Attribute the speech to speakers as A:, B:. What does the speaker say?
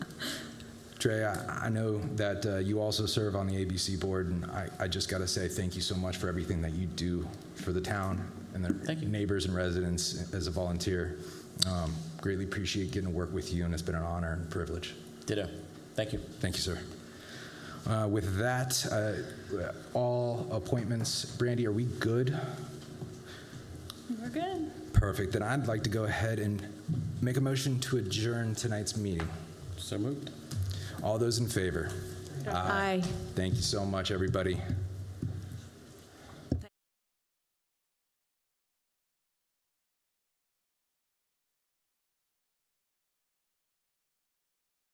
A: Trey, I, I know that uh, you also serve on the ABC board, and I, I just got to say thank you so much for everything that you do for the town and the
B: Thank you.
A: neighbors and residents as a volunteer. Um, greatly appreciate getting to work with you, and it's been an honor and privilege.
B: Ditto. Thank you.
A: Thank you, sir. Uh, with that, uh, all appointments. Brandy, are we good?
C: We're good.
A: Perfect. Then I'd like to go ahead and make a motion to adjourn tonight's meeting.
B: So moved.
A: All those in favor?
C: Aye.
A: Thank you so much, everybody.